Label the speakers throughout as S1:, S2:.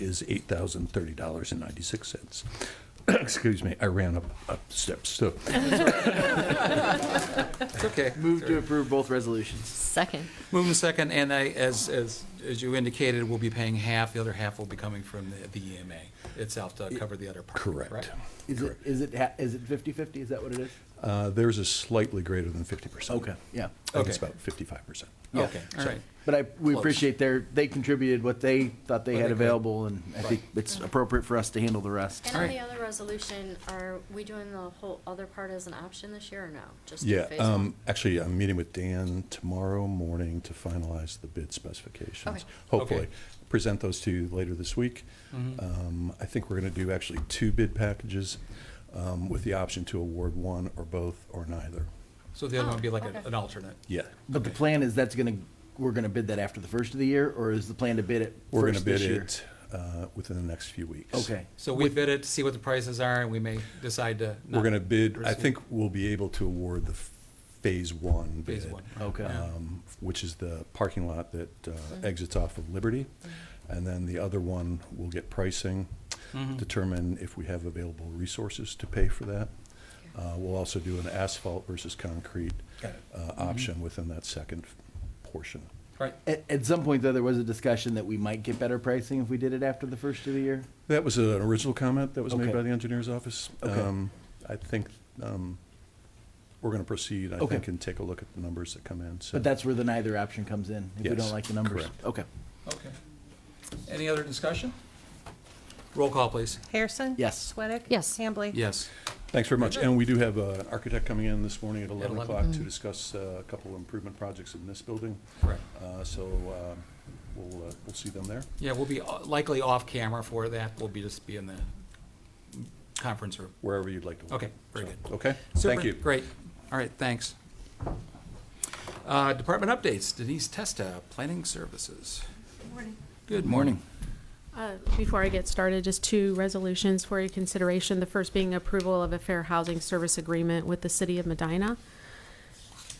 S1: is $8,030.96. Excuse me, I ran up, up steps, so.
S2: It's okay.
S3: Move to approve both resolutions.
S4: Second.
S2: Moving second, and I, as, as, as you indicated, we'll be paying half, the other half will be coming from the- the EMA itself to cover the other part.
S1: Correct.
S3: Is it, is it, ha- is it fifty-fifty? Is that what it is?
S1: Uh, Theirs is slightly greater than 50%. I
S3: Yeah.
S1: think it's
S2: Okay.
S1: about 55%.
S3: Yeah.
S2: Okay, all right.
S3: But I, we
S2: Close.
S3: appreciate their, they contributed what they thought they
S2: What
S3: had
S2: they could.
S3: available, and I think it's appropriate for us to handle the rest.
S5: And on
S2: Alright.
S5: the other resolution, are we doing the whole other part as an option this year or no? Just
S1: Yeah,
S5: phase one?
S1: um, actually, I'm meeting with Dan tomorrow morning to finalize the bid specifications.
S5: Okay.
S1: Hopefully,
S2: Okay.
S1: present those to you later this week. Um, I think we're gonna do actually two bid packages, um, with the option to award one or both or neither.
S2: So the other one would be like
S5: Oh, okay.
S2: a- an alternate.
S1: Yeah.
S3: But the plan is that's gonna, we're gonna bid that after the first of the year, or is the plan to bid it
S1: We're gonna
S3: first
S1: bid
S3: this year?
S1: it, uh, within the next few weeks.
S3: Okay.
S2: So we bid it, see what the prices are, and we may decide to.
S1: We're
S2: not
S1: gonna bid, I
S2: proceed.
S1: think we'll be able to award the f- phase one bid.
S2: Phase one.
S3: Okay.
S2: Yeah.
S1: um, which is the parking lot that uh, exits off of Liberty.
S2: Mm-hmm.
S1: And then the other one will get pricing, determine if we have available resources to pay for that. Uh, We'll also do an asphalt versus concrete
S2: Got it. Mm-hmm.
S1: uh, option within that second portion.
S2: Right,
S3: At, at some point, though, there was a discussion that we might get better pricing if we did it after the first of the year.
S1: That was an original comment that was made
S3: Okay.
S1: by the engineer's office.
S3: Okay.
S1: Um, I think um, we're going to proceed, I
S3: Okay.
S1: think, and take a look at the numbers that come in. So
S3: But that's where the neither option comes in, if we
S1: Yes,
S3: don't like the numbers.
S1: correct.
S3: Okay.
S2: okay. Any other discussion? Roll call, please.
S6: Harrison?
S3: Yes.
S6: Sweattick?
S4: Yes.
S6: Hambley?
S2: Yes.
S1: Thanks very much. And we do have uh, an architect coming in this morning at 11
S2: 11.
S1: o'clock to discuss uh, a couple of improvement projects in this building.
S2: Correct.
S1: Uh, So uh, we'll, uh, we'll see them there.
S2: Yeah, we'll be uh, likely off camera for that. We'll be just be in the conference room.
S1: wherever you'd like to. work.
S2: Okay, very
S1: So,
S2: good.
S1: Okay,
S2: Super,
S1: thank you.
S2: Great. All right, thanks. Uh, Department updates. Denise Testa, Planning Services. Good morning.
S7: Uh, Before I get started, just two resolutions for your consideration. The first being approval of a fair housing service agreement with the city of Medina,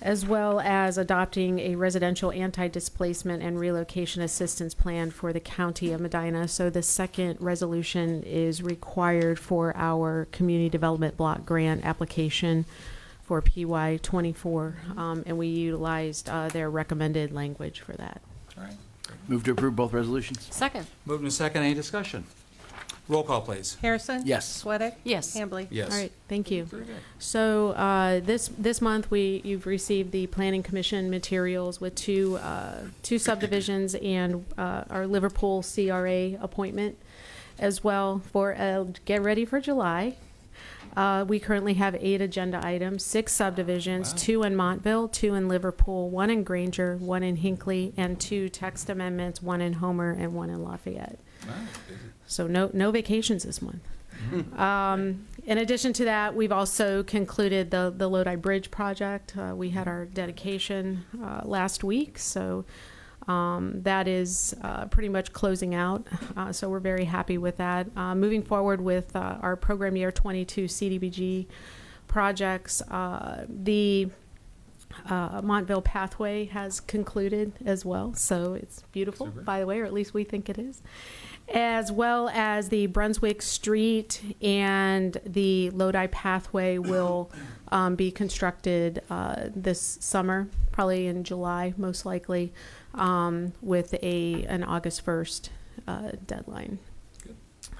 S7: as well as adopting a residential anti-displacement and relocation assistance plan for the county of Medina. So the second resolution is required for our community development block grant application for PY twenty-four. um, And we utilized uh, their recommended language for that.
S2: All right.
S3: Move to approve both resolutions?
S4: Second.
S2: Moved and second. Any discussion? Roll call, please.
S6: Harrison?
S3: Yes.
S6: Sweattick?
S4: Yes.
S6: Hambley?
S2: Yes.
S7: All right, thank you.
S2: Very good.
S7: So uh, this this month we you've received the planning commission materials with two uh, two subdivisions and uh, our Liverpool CRA appointment as well for uh, get ready for July. Uh, we currently have eight agenda items, six subdivisions,
S2: Wow.
S7: two in Montville, two in Liverpool, one in Granger, one in Hinckley, and two text amendments, one in Homer and one in Lafayette.
S2: All right, busy.
S7: So no, no vacations this month. Um, in addition to that, we've also concluded the, the Lodi Bridge project. Uh, we had our dedication uh, last week, so um, that is uh, pretty much closing out. Uh, so we're very happy with that. Uh, moving forward with uh, our program year 22 CDBG projects, uh, the uh, Montville Pathway has concluded as well, so it's beautiful,
S2: Super.
S7: by the way, or at least we think it is, as well as the Brunswick Street and the Lodi Pathway will um, be constructed uh, this summer, probably in July, most likely, um, with a an August 1st uh, deadline.
S2: Good.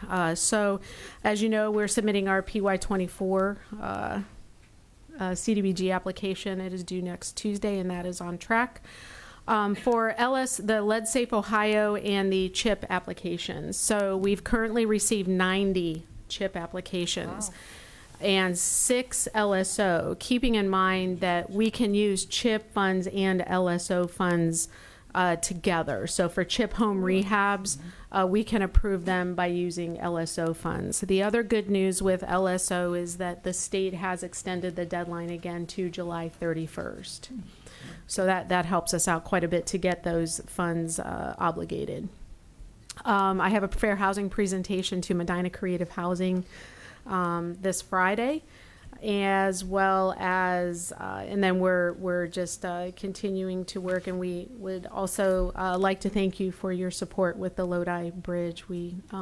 S7: Uh, so, as you know, we're submitting our PY24 uh, uh, CDBG application. It is due next Tuesday, and that is on track. Um, for LS, the Lead Safe Ohio and the CHIP applications. So we've currently received 90 CHIP applications and six LSO, keeping in mind that we can use CHIP funds and LSO funds uh, together. So for CHIP home rehabs, uh, we can approve them by using LSO funds. The other good news with LSO is that the state has extended the deadline again to July 31st. So that, that helps us out quite a bit to get those funds uh, obligated. Um, I have a fair housing presentation to Medina Creative Housing um, this Friday. as well as, uh, and then we're, we're just uh, continuing to work. And we would also uh, like to thank you for your support with the Lodi Bridge. We